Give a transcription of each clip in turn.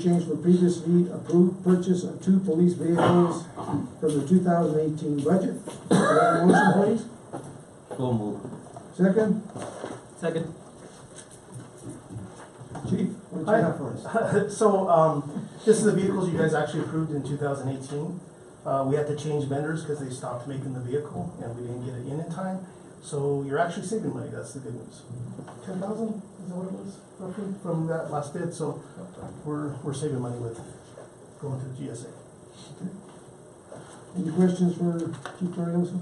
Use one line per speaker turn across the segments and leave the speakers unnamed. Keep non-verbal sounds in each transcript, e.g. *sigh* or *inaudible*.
Change for previous need, approved purchase of two police vehicles from the two thousand eighteen budget. Do I have a motion, please?
So moved.
Second,
Second.
chief, what do you have for us?
So, um, this is the vehicles you guys actually approved in two thousand eighteen. Uh, we had to change vendors because they stopped making the vehicle and we didn't get it in in time. So you're actually saving money, that's the good news. Ten thousand, is that what it was roughly from that last bid, so we're, we're saving money with going through GSA.
Any questions for Chief Torioso?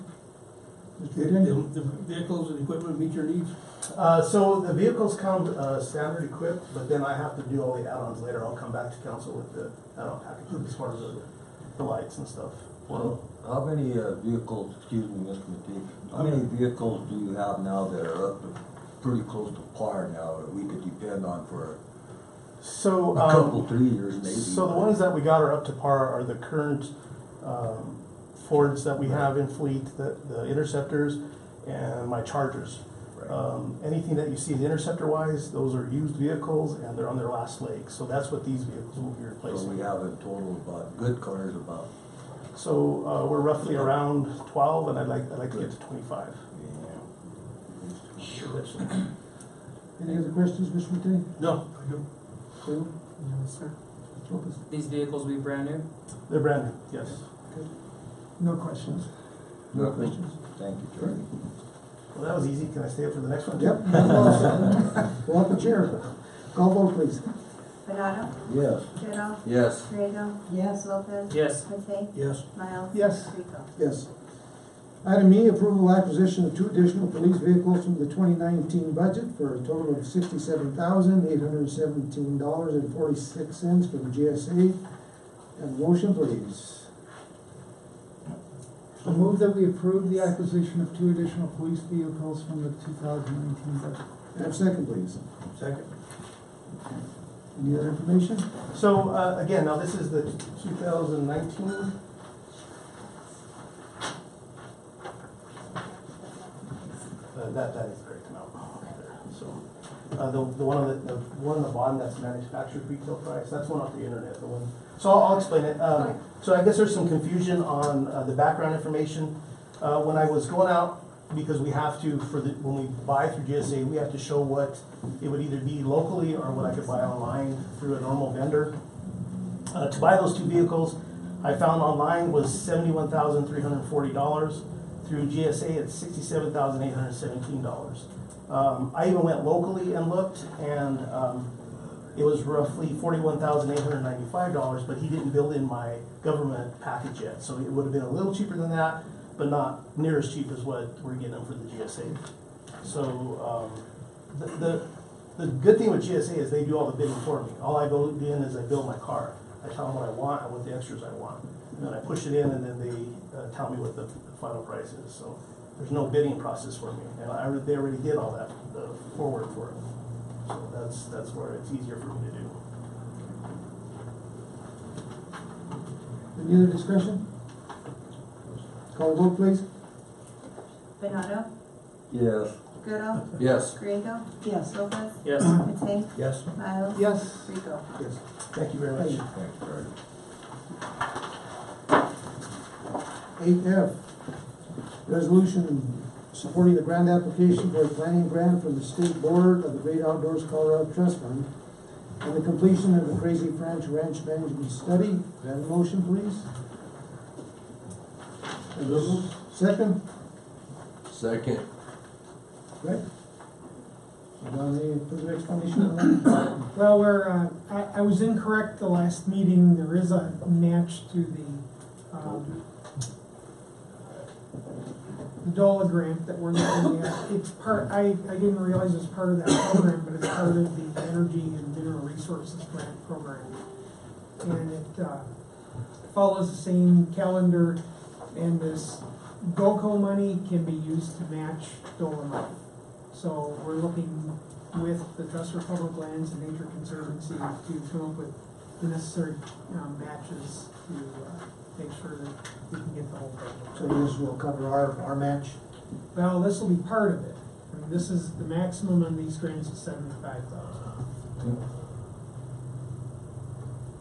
Mr. McDaniel?
The vehicles and equipment meet your needs?
Uh, so the vehicles come, uh, standard equipped, but then I have to do all the add-ons later. I'll come back to council with the add-on package as far as the, the lights and stuff.
Well, how many uh, vehicles, excuse me, Mr. Matee, how many vehicles do you have now that are up to, pretty close to par now that we could depend on for a
So, um.
couple, three years maybe?
So the ones that we got are up to par are the current um, Fords that we have in fleet, the the Interceptors and my Chargers.
Right.
Um, Anything that you see Interceptor wise, those are used vehicles and they're on their last leg. So that's what these vehicles will be
So we
replacing.
have a total about, good cars about,
So uh, we're roughly around 12 and I'd like, I'd like to get to 25.
yeah.
Any other questions, Mr. McDaniel?
No. I do.
Phil?
Yes, sir.
Mr. Lopez?
These vehicles will be brand new?
They're brand new, yes.
No questions.
No questions? Thank you, Charlie.
Well, that was easy. Can I stay up for the next one?
Yep. *laughs* Walk the chair. Call vote, please.
Bernado,
Yes.
Gerald,
Yes.
Grego. Yes. Lopez.
Yes.
Matei,
Yes.
Miles.
Yes.
Rico.
Yes. Item E, approval acquisition of two additional police vehicles from the twenty nineteen budget for a total of sixty-seven thousand, eight hundred and seventeen dollars and forty-six cents from GSA. And motion, please.
I move that we approve the acquisition of two additional police vehicles from the two thousand nineteen budget.
Have second, please.
Second.
Any other information?
So, uh, again, now this is the two thousand nineteen. Uh, That, that is the correct amount. So, uh, the, the one on the, the one on the bottom, that's manufactured retail price, that's one off the internet, the one. So I'll, I'll explain it. Um, so I guess there's some confusion on, uh, the background information. Uh, when I was going out, because we have to, for the, when we buy through GSA, we have to show what it would either be locally or what I could buy online through a normal vendor. Uh, to buy those two vehicles, I found online was seventy-one thousand three hundred and forty dollars. Through GSA, it's sixty-seven thousand eight hundred and seventeen dollars. Um, I even went locally and looked, and, um, it was roughly forty-one thousand eight hundred and ninety-five dollars, but he didn't build in my government package yet, so it would have been a little cheaper than that, but not near as cheap as what we're getting for the GSA. So, um, the, the, the good thing with GSA is they do all the bidding for me. All I go in is I build my car. I tell them what I want and what the extras I want. And then I push it in and then they uh, tell me what the the final price is. So there's no bidding process for me. And I, already- they already did all that, the forward for it. So that's, that's where it's easier for me to do.
Any other discussion? Call vote, please.
Bernado,
Yes.
Gerald,
Yes.
Grego. Yes. Lopez.
Yes.
Matei,
Yes.
Miles.
Yes.
Rico.
Yes.
Thank you very much.
Thank you.
Thanks, Charlie.
Eight F, resolution supporting the grant application for a planning grant from the State Board of the Great Outdoors Colorado Trust Fund and the completion of the Crazy Ranch Ranch Management Study. Can I have a motion, please? And this one, Second,
Second.
right? Don, any further explanation on that?
Well, we're, uh, I, I was incorrect the last meeting, there is a match to the, um, the DOLA grant that we're looking at, it's part, I, I didn't realize it's part of that program, but it's part of the Energy and Mineral Resources Grant Program. And it, uh, follows the same calendar, and this GOCO money can be used to match DOLA money. So we're looking with the Trust for Public Lands and Nature Conservancy to come up with the necessary um, matches to uh, make sure that we can get the whole
So
thing.
this will cover our, our match.
Well, this will be part of it. I mean, this is, the maximum on these grants is seventy-five thousand.